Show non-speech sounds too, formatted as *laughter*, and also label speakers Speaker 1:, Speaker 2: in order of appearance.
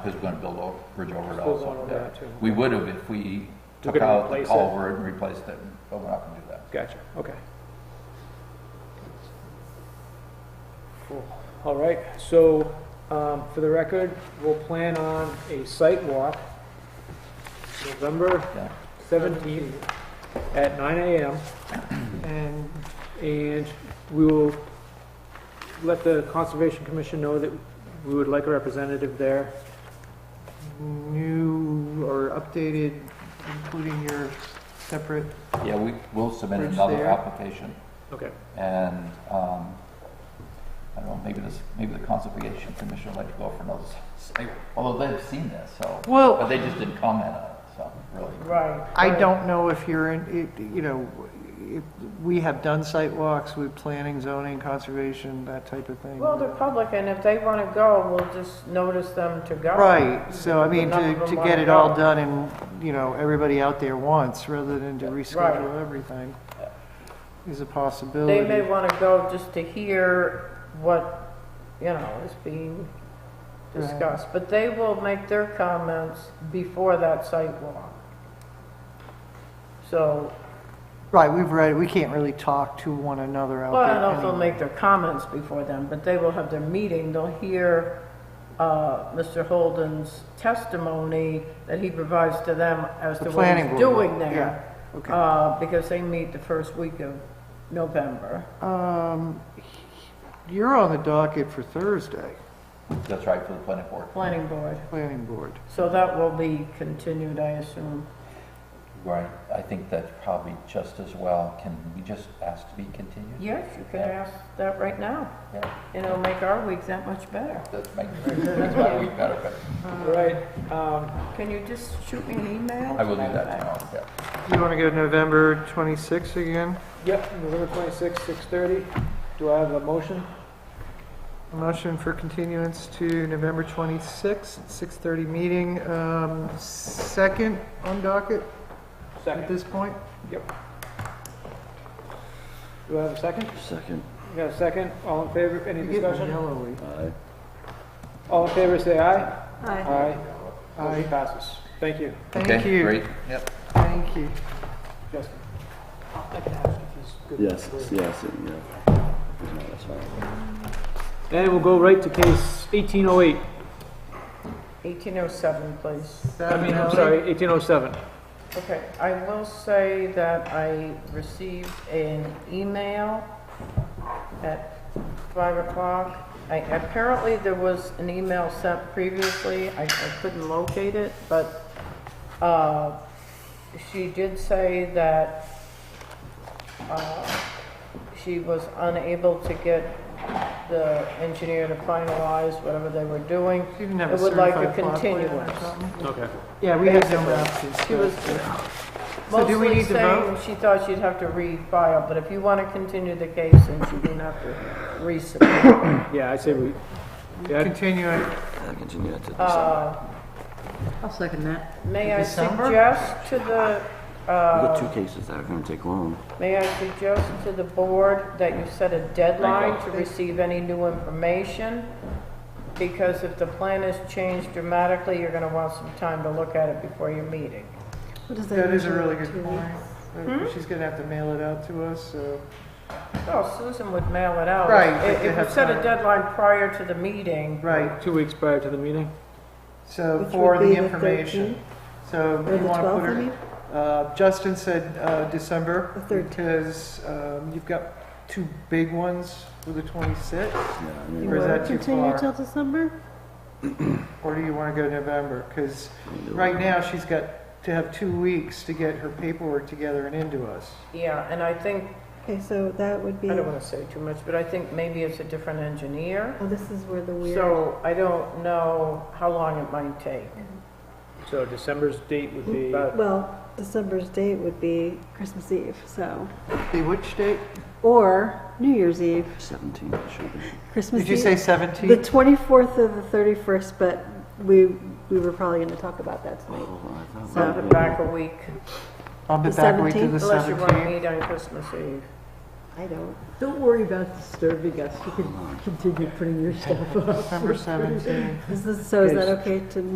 Speaker 1: because we're gonna build a bridge over it
Speaker 2: Still going
Speaker 1: also.
Speaker 2: over
Speaker 1: yeah.
Speaker 2: that too.
Speaker 1: We would have if we took
Speaker 2: gonna
Speaker 1: out the
Speaker 2: replace it.
Speaker 1: culvert and replaced it, but we're not gonna do that.
Speaker 2: Gotcha, okay. Cool. All right, so, um, for the record, we'll plan on a site walk November
Speaker 1: Yeah.
Speaker 2: seventeenth at nine AM. And, and we will let the Conservation Commission know that we would like a representative there. New or updated, including your separate.
Speaker 1: Yeah, we will submit
Speaker 2: Bridge
Speaker 1: another
Speaker 2: there.
Speaker 1: application
Speaker 2: Okay.
Speaker 1: and, um, I don't know, maybe this, maybe the conservation commission would like to go for another, s- s- although they've seen this, so.
Speaker 3: Well-
Speaker 1: But they just didn't comment on it, so, really.
Speaker 2: Right.
Speaker 3: I don't know if you're in, it- you know, if, we have done site walks with planning, zoning, conservation, that type of thing.
Speaker 4: Well, they're public, and if they want to go, we'll just notice them to go.
Speaker 3: Right, so I mean,
Speaker 4: None
Speaker 3: to,
Speaker 4: of them
Speaker 3: to
Speaker 4: wanna
Speaker 3: get it all
Speaker 4: go.
Speaker 3: done and, you know, everybody out there once, rather than to reschedule everything, is a possibility.
Speaker 4: They may want to go just to hear what, you know, is being
Speaker 3: Right.
Speaker 4: discussed, but they will make their comments before that site walk. So,
Speaker 3: Right, we've read, we can't really talk to one another out
Speaker 4: well,
Speaker 3: there.
Speaker 4: I don't know if they'll
Speaker 3: anyway.
Speaker 4: make their comments before then, but they will have their meeting, they'll hear uh, Mr. Holden's testimony that he provides to them as
Speaker 3: The
Speaker 4: to what
Speaker 3: planning
Speaker 4: he's
Speaker 3: board.
Speaker 4: doing
Speaker 3: will,
Speaker 4: there.
Speaker 3: yeah, Okay.
Speaker 4: Uh, because they meet the first week of November.
Speaker 3: Um, you're on the docket for Thursday,
Speaker 1: That's right, for the planning board.
Speaker 4: planning board.
Speaker 3: planning board.
Speaker 4: So that will be continued, I assume.
Speaker 1: Right, I think that's probably just as well. Can we just ask to be continued?
Speaker 4: Yes, you can ask that right now.
Speaker 1: Yeah.
Speaker 4: And it'll make our week that much better.
Speaker 1: That's make, that's
Speaker 2: *laughs*
Speaker 1: why we better, but
Speaker 2: All right, um,
Speaker 4: Can you just shoot me an email?
Speaker 1: I will do that tomorrow, yeah.
Speaker 3: You wanna go November twenty-sixth again?
Speaker 2: Yep, November twenty-sixth, six thirty. Do I have a motion?
Speaker 3: Motion for continuance to November 26th, 6:30 meeting, um, second on docket at this point?
Speaker 2: Do I have a second?
Speaker 5: Second.
Speaker 2: You got a second? All in favor, any
Speaker 3: You're getting
Speaker 2: discussion?
Speaker 3: yellowy.
Speaker 5: Aye.
Speaker 2: All in favor, say aye. Aye. Aye. Motion passes. Thank you,
Speaker 3: Thank
Speaker 1: Okay,
Speaker 3: you,
Speaker 1: Great, yep.
Speaker 3: thank you.
Speaker 2: Justin.
Speaker 5: Yes, yes, yeah. No, that's fine.
Speaker 2: And we'll go right to case eighteen oh eight,
Speaker 4: 1807, please.
Speaker 2: I mean, I'm sorry, eighteen oh seven.
Speaker 4: Okay, I will say that I received an email at 5 o'clock. I- Apparently, there was an email sent previously, I I couldn't locate it, but uh, she did say that uh, she was unable to get the engineer to finalize whatever they were doing.
Speaker 3: You didn't have a
Speaker 4: It would like a
Speaker 3: certified plot plan or
Speaker 4: continuance.
Speaker 3: something?
Speaker 2: Okay.
Speaker 3: Yeah, we had no options.
Speaker 4: She was
Speaker 3: So do we
Speaker 4: mostly
Speaker 3: need to
Speaker 4: saying
Speaker 3: vote?
Speaker 4: she thought she'd have to refile, but if you want to continue the case, then she didn't have to resubmit.
Speaker 2: Yeah, I say we, yeah,
Speaker 3: Continuing,
Speaker 5: I'll continue that to December.
Speaker 4: Uh,
Speaker 6: I'll second that.
Speaker 4: May I
Speaker 3: December?
Speaker 4: suggest to the,
Speaker 5: We've
Speaker 4: uh,
Speaker 5: got two cases that are gonna take long.
Speaker 4: may I suggest to the board that you set a deadline to receive any new information? Because if the plan is changed dramatically, you're going to want some time to look at it before your meeting.
Speaker 6: What does
Speaker 3: that is a
Speaker 6: mean?
Speaker 3: really good
Speaker 6: Two
Speaker 3: point.
Speaker 6: weeks?
Speaker 2: Hmm?
Speaker 3: Uh, She's gonna have to mail it out to us, so.
Speaker 4: Oh, Susan would mail it out.
Speaker 3: Right,
Speaker 4: If-
Speaker 3: if they
Speaker 4: If you
Speaker 3: have
Speaker 4: set a
Speaker 3: time.
Speaker 4: deadline prior to the meeting,
Speaker 3: Right,
Speaker 2: two weeks prior to the meeting.
Speaker 3: so
Speaker 6: Which
Speaker 3: for
Speaker 6: would
Speaker 3: the
Speaker 6: be the
Speaker 3: information. So
Speaker 6: Or
Speaker 3: you
Speaker 6: the
Speaker 3: wanna put
Speaker 6: twelfth, I
Speaker 3: her,
Speaker 6: mean?
Speaker 3: uh, Justin said, uh, December.
Speaker 6: The 13th.
Speaker 3: Because, um, you've got two big ones for the twenty-sixth.
Speaker 5: Yeah, I
Speaker 6: You
Speaker 5: mean,
Speaker 3: Or is
Speaker 6: wanna
Speaker 3: that too
Speaker 6: Continue
Speaker 3: far?
Speaker 6: till December?
Speaker 3: Or do you want to go November? Because
Speaker 5: we can do it.
Speaker 3: right now, she's got to have two weeks to get her paperwork together and into us.
Speaker 4: yeah, and I think
Speaker 6: Okay, so that would be,
Speaker 4: I don't
Speaker 6: oh,
Speaker 4: want to say too much, but I think maybe it's a different engineer.
Speaker 6: this is where the weird,
Speaker 4: So I don't know how long it might take.
Speaker 2: So December's date would be,
Speaker 6: well, December's date would be Christmas Eve, so,
Speaker 3: The which date?
Speaker 6: or New Year's Eve,
Speaker 5: Seventeen, it should be.
Speaker 6: Christmas
Speaker 3: Did you
Speaker 6: Eve.
Speaker 3: say
Speaker 6: The
Speaker 3: 17?
Speaker 6: 24th or the 31st, but we, we were probably going to talk about that tonight.
Speaker 5: Oh, I thought.
Speaker 4: Send it back a week,
Speaker 3: I'll be back week to the
Speaker 6: The
Speaker 4: unless you want to
Speaker 3: 17th.
Speaker 4: meet on Christmas Eve.
Speaker 6: I don't.
Speaker 7: Don't worry about disturbing us, you can continue putting your stuff up.
Speaker 3: Number 17.
Speaker 6: Is this- So is that okay to